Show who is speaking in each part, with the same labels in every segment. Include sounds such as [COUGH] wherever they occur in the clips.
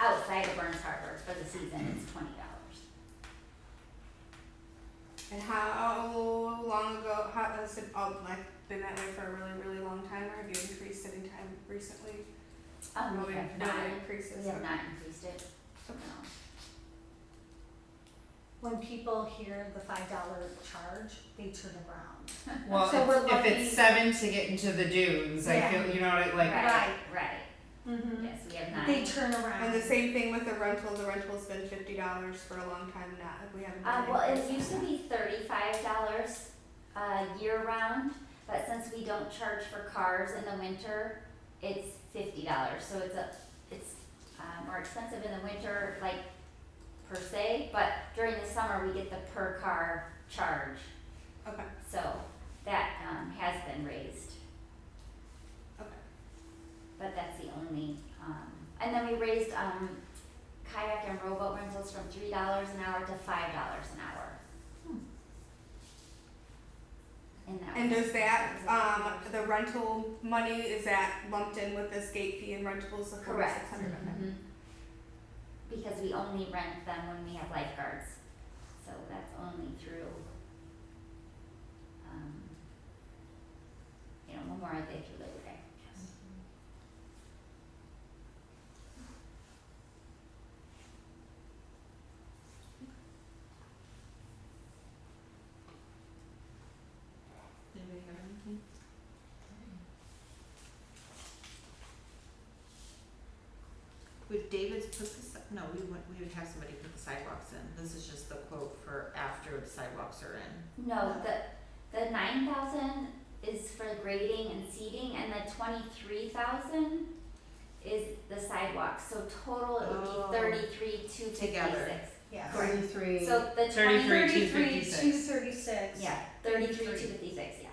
Speaker 1: outside of Burns Harbor for the season is twenty dollars.
Speaker 2: And how long ago how, has it all like been that way for a really, really long time, or have you increased sitting time recently?
Speaker 1: Um,
Speaker 2: Oh, No,
Speaker 1: we have
Speaker 2: no
Speaker 1: not, we
Speaker 2: increases.
Speaker 1: have not increased it, no.
Speaker 3: When people hear the five dollar charge, they turn around.
Speaker 4: Well,
Speaker 3: So we're
Speaker 4: if
Speaker 3: lucky-
Speaker 4: it's seven to get into the dunes, I
Speaker 3: Yeah.
Speaker 4: feel you know like
Speaker 1: Right, right,
Speaker 2: Mm-hmm.
Speaker 1: yes, we have not.
Speaker 3: They turn around.
Speaker 2: And the same thing with the rental. The rental's been fifty dollars for a long time now. We haven't.
Speaker 1: Uh,
Speaker 2: done
Speaker 1: well, it
Speaker 2: anything.
Speaker 1: used to be thirty-five dollars, uh, year-round, but since we don't charge for cars in the winter, it's fifty dollars, so it's a, it's, uh, more expensive in the winter, like, per se, but during the summer, we get the per car charge,
Speaker 2: Okay.
Speaker 1: so that, um, has been raised.
Speaker 2: Okay.
Speaker 1: But that's the only, um, and then we raised, um, kayak and rowboat rentals from three dollars an hour to five dollars an hour. Hmm. And that
Speaker 2: And
Speaker 1: was-
Speaker 2: does that um the rental money is that lumped in with this gate fee and rentables of forty
Speaker 1: Correct.
Speaker 2: six hundred?
Speaker 1: Mhm. Because we only rent them when we have lifeguards, so that's only through, um, you know, Memorial Day through Labor Day.
Speaker 5: Anybody have anything? Would David's put the, si- no, we would, we would have somebody put the sidewalks in, this is just the quote for after the sidewalks are in.
Speaker 1: No, the, the nine thousand is for grading and seating, and the twenty-three thousand is the sidewalks, so total it
Speaker 5: Oh.
Speaker 1: would be thirty-three, two
Speaker 5: Together.
Speaker 1: fifty-six.
Speaker 3: Yeah.
Speaker 1: Correct.
Speaker 4: Thirty-three.
Speaker 1: So the twenty,
Speaker 5: 33,
Speaker 3: Two thirty six.
Speaker 1: yeah, thirty-three, two fifty-six, yeah,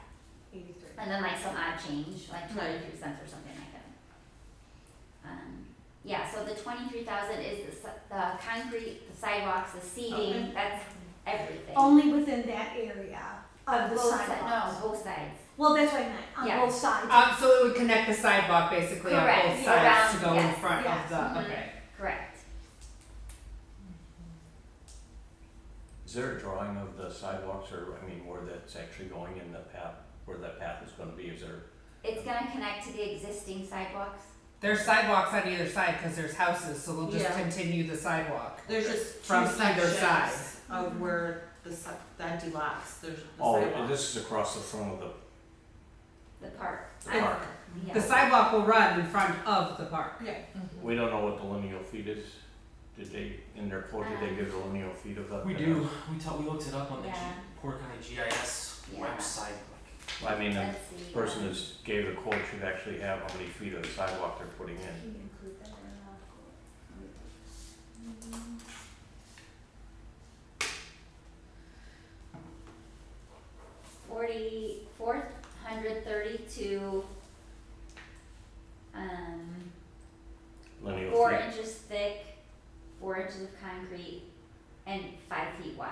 Speaker 5: Eighty-three.
Speaker 1: and then like some odd change, like
Speaker 5: Right.
Speaker 1: twenty-three cents or something like that. Um, yeah, so the twenty-three thousand is the, si- the concrete, the sidewalks, the
Speaker 5: Okay.
Speaker 1: seating, that's everything.
Speaker 3: Only within that area of the
Speaker 1: Both si-
Speaker 3: sidewalks.
Speaker 1: No, both sides.
Speaker 3: Well, that's what I meant,
Speaker 1: Yeah. Uh,
Speaker 3: on both sides.
Speaker 4: Um, so it would connect the sidewalk basically
Speaker 1: Correct,
Speaker 4: on both
Speaker 1: around,
Speaker 4: sides to go
Speaker 1: yes,
Speaker 4: in front
Speaker 3: yes.
Speaker 4: of the
Speaker 1: Mhm.
Speaker 4: okay.
Speaker 1: Correct.
Speaker 6: Is there a drawing of the sidewalks or, I mean, where that's actually going in the path, where that path is gonna be, is there?
Speaker 1: It's gonna connect to the existing sidewalks.
Speaker 4: There's sidewalks on either side because there's houses, so they'll just
Speaker 5: Yeah.
Speaker 4: continue the sidewalk.
Speaker 5: There's just two
Speaker 4: From either side.
Speaker 5: sections of where the si- the empty lots, there's the
Speaker 6: Oh,
Speaker 5: sidewalks.
Speaker 6: and this is across the front of the,
Speaker 1: The park.
Speaker 6: the
Speaker 5: I-
Speaker 6: park.
Speaker 1: Yeah.
Speaker 4: The sidewalk will run in front of the park.
Speaker 5: Yeah,
Speaker 6: We don't know what the lineal feet is. Did they, in their quote,
Speaker 1: Um,
Speaker 6: did they give the lineal feet of that?
Speaker 7: We do. We tell, we looked it up on the G-
Speaker 1: Yeah.
Speaker 7: Port County GIS
Speaker 1: Yeah.
Speaker 7: website. Like,
Speaker 6: I mean, the
Speaker 1: Let's see.
Speaker 6: person who's gave the quote should actually have how many feet of sidewalk they're putting in.
Speaker 1: Can you include that in the Forty, four hundred thirty-two, um,
Speaker 6: Lineal
Speaker 1: four
Speaker 6: feet.
Speaker 1: inches thick, four inches of concrete, and five feet wide.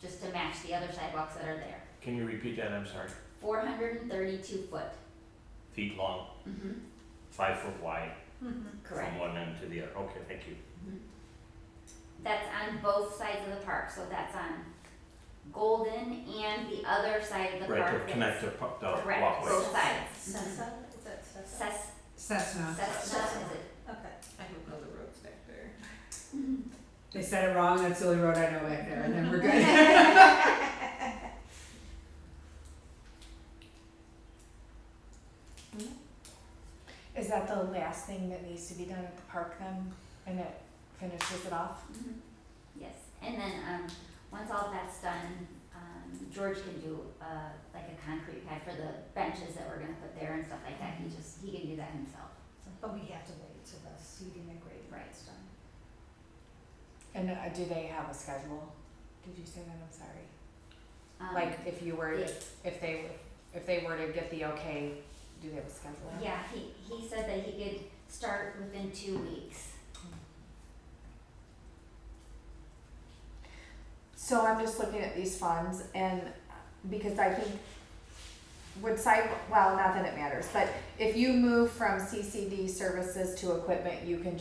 Speaker 1: Just to match the other sidewalks that are there.
Speaker 6: Can you repeat that? I'm sorry.
Speaker 1: Four hundred and thirty-two foot.
Speaker 6: Feet long,
Speaker 1: Mm-hmm.
Speaker 6: five foot wide
Speaker 3: Mhm.
Speaker 1: Correct.
Speaker 6: from one end to the other. Okay, thank you.
Speaker 1: That's on both sides of the park, so that's on Golden and the other side of the park.
Speaker 6: Right, to
Speaker 1: that's-
Speaker 6: connect the, pu- the walkway.
Speaker 1: Correct, both sides.
Speaker 3: Sessa, is that Sessa?
Speaker 1: Cess,
Speaker 4: Cessna.
Speaker 1: Cessna, is it?
Speaker 3: Okay.
Speaker 5: I don't know the roads back there.
Speaker 4: They said it wrong. That's the only road I know back there, and then we're [LAUGHS] good.
Speaker 8: Is that the last thing that needs to be done at the park then, and it finishes it off?
Speaker 1: Mhm. Yes, and then, um, once all that's done, um, George can do, uh, like a concrete pad for the benches that we're gonna put there and stuff like that, he just, he can do that himself,
Speaker 3: But we have to wait till the seating and grading
Speaker 1: Right.
Speaker 3: is done.
Speaker 8: And uh, do they have a schedule? Did you say that? I'm sorry.
Speaker 1: um.
Speaker 8: Like if you were,
Speaker 1: yeah.
Speaker 8: if they, if they were to get the okay, do they have a schedule?
Speaker 1: Yeah, he, he said that he could start within two weeks.
Speaker 8: So I'm just looking at these funds and because I think would side, well, not that it matters, but if you move from CCD services to equipment, you can